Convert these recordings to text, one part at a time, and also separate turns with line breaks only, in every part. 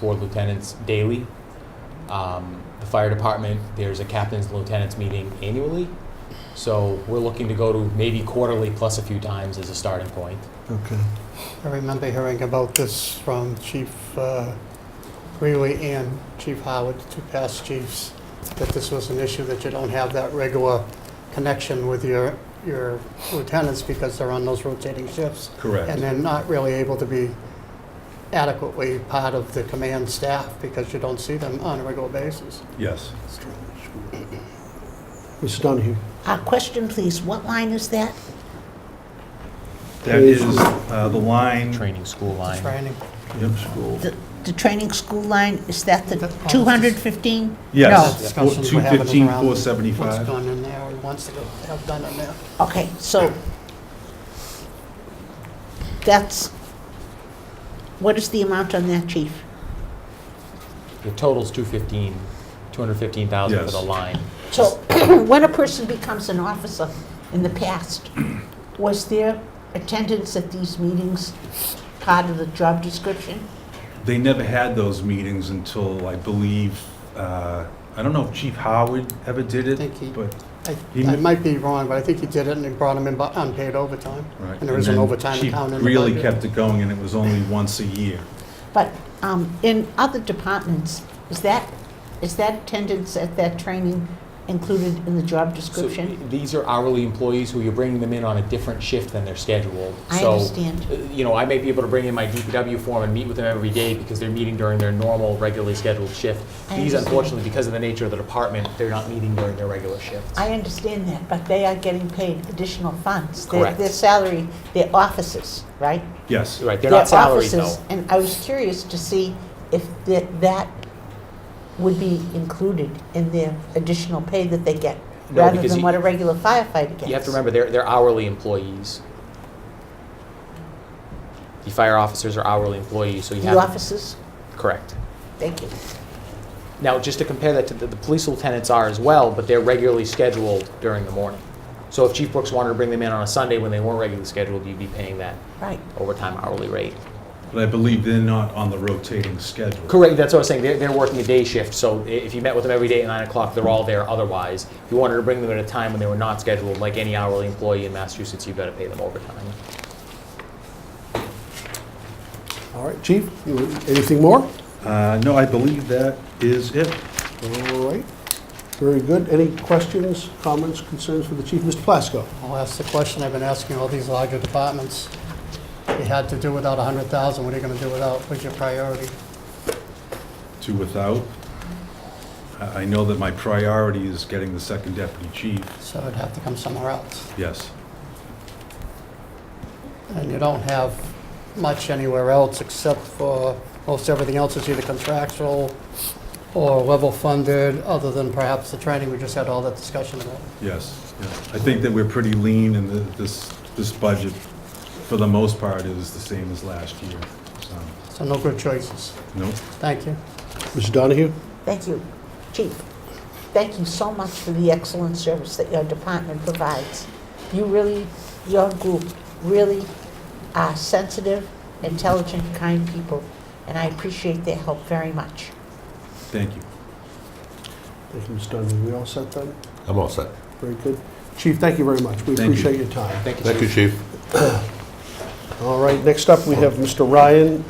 for lieutenants daily. Um, the fire department, there's a captain's and lieutenants meeting annually. So we're looking to go to maybe quarterly plus a few times as a starting point.
Okay.
I remember hearing about this from Chief uh, Greeley and Chief Howard, the two past chiefs, that this was an issue, that you don't have that regular connection with your, your lieutenants because they're on those rotating shifts, and
Correct.
they're not really able to be adequately part of the command staff because you don't see them on a regular basis.
Yes.
Mr. Donahue?
Uh, question, please. What line is that?
That is uh, the line.
Training school line.
Training.
Yep, school.
The, the training school line, is that the
That-
215?
Yes.
No.
Four-
Discussions we're having
215,
around What's
475.
gone in there, and wants to have done in there.
No. Okay, so that's, what is the amount on that, chief?
The total's 215, 215,000 for
Yes.
the line.
So when a person becomes an officer in the past, was their attendance at these meetings part of the job description?
They never had those meetings until, I believe, uh, I don't know if Chief Howard ever did
Think he-
it, but,
I
He
I
mi-
might be wrong, but I think he did it and he brought them in bu- unpaid overtime.
right.
And there is an
then
overtime account in the
Chief really
budget.
kept it going, and it was only once a year.
But um, in other departments, is that, is that attendance at that training included in the job
So
description?
these are hourly employees who you're bringing them in on a different shift than they're scheduled.
I
So,
understand.
uh, You know, I may be able to bring in my DPW form and meet with them every day because they're meeting during their normal, regularly scheduled shift.
I
These
understand.
unfortunately, because of the nature of the department, they're not meeting during their regular shifts.
I understand that, but they are getting paid additional funds. Their-
Correct.
Their salary, their offices, right?
Yes.
Right, they're not
Their
salaries though.
offices, And I was curious to see if that that would be included in their additional pay that they get,
No,
rather
because
than
you-
what a regular firefighter gets.
You have to remember, they're, they're hourly employees. The fire officers are hourly employees, so you have.
The offices,
Correct.
thank you.
Now, just to compare that to the, the police lieutenants are as well, but they're regularly scheduled during the morning. So if Chief Brooks wanted to bring them in on a Sunday when they weren't regularly scheduled, you'd be paying that
Right.
overtime hourly rate.
But I believe they're not on the rotating schedule.
Correct, that's what I was saying, they're, they're working a day shift, so i- if you met with them every day at nine o'clock, they're all there otherwise. If you wanted to bring them at a time when they were not scheduled, like any hourly employee in Massachusetts, you better pay them overtime.
All right, Chief, you- anything more?
Uh, No, I believe that is it.
All right, very good. Any questions, comments, concerns for the chief? Mr. Plasko?
I'll ask the question I've been asking all these larger departments. If you had to do without 100,000, what are you going to do without, what's your priority?
To without. I I know that my priority is getting the second deputy chief.
So it'd have to come somewhere else.
Yes.
And you don't have much anywhere else except for, most everything else is either contractual or level funded, other than perhaps the training, we just had all that discussion about.
Yes, yeah. I think that we're pretty lean, and the- this, this budget, for the most part, is the same as last year, Um, so,
So no good choices.
nope.
Thank you.
Mr. Donahue?
Thank you, Chief. Thank you so much for the excellent service that your department provides. You really, your group really are sensitive, intelligent, kind people, and I appreciate their help very much.
Thank you.
Thank you, Mr. Donahue. We all set then?
I'm all set.
Very good. Chief, thank you very much. We
Thank you.
appreciate your time.
Thank you,
Thank you, Chief.
All right, next up, we have Mr. Ryan,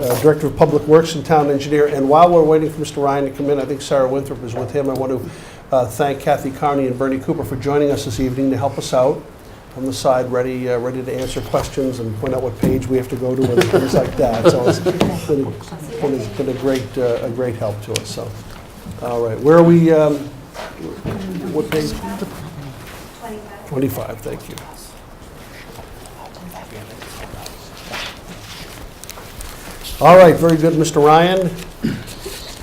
uh, Director of Public Works and Town Engineer. And while we're waiting for Mr. Ryan to come in, I think Sarah Winthrop is with him. I want to uh, thank Kathy Carney and Bernie Cooper for joining us this evening to help us out on the side, ready, uh, ready to answer questions and point out what page we have to go to and things like that. So it's been a- been a- been a great, uh, a great help to us, so. All right, where are we, um, what page? 25, thank you. All right, very good, Mr. Ryan.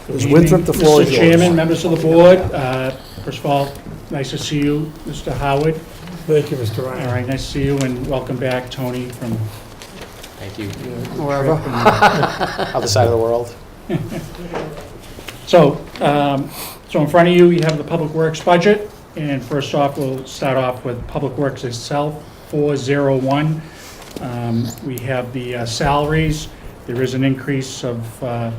Ms. Winthrop, the floor is
Mr.
yours.
Chairman, members of the board, uh, first of all, nice to see you, Mr. Howard.
Thank you, Mr.
All
Ryan.
right, nice to see you, and welcome back, Tony, from
Thank you.
Wherever.
Other side of the world?
So, um, so in front of you, you have the Public Works budget, and first off, we'll start off with Public Works itself, 401. Um, We have the uh, salaries, there is an increase of uh,